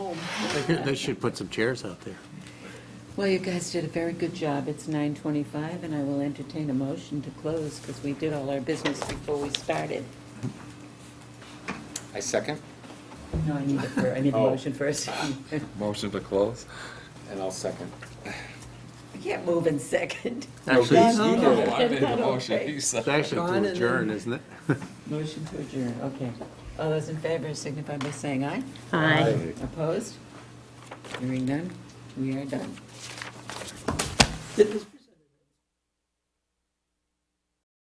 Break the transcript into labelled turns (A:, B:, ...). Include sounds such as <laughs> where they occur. A: They could- They should put some chairs out there.
B: Well, you guys did a very good job. It's 9:25, and I will entertain a motion to close because we did all our business before we started.
C: I second.
B: No, I need a, fir- I need a
C: Oh.
B: motion first. <laughs> You
D: Motion to close?
C: And I'll second.
B: can't move in second.
A: Actually, it's
B: No, no, no.
D: No, I made
B: I
D: the
B: don't
D: motion,
B: think.
D: you
A: it's
D: second.
A: actually
B: Gone and
A: to
B: then-
A: adjourn, isn't it? <laughs>
B: Motion to adjourn, okay. All those in favor signify by saying aye.
C: Aye.
B: Opposed? Hearing none, we are done. Did this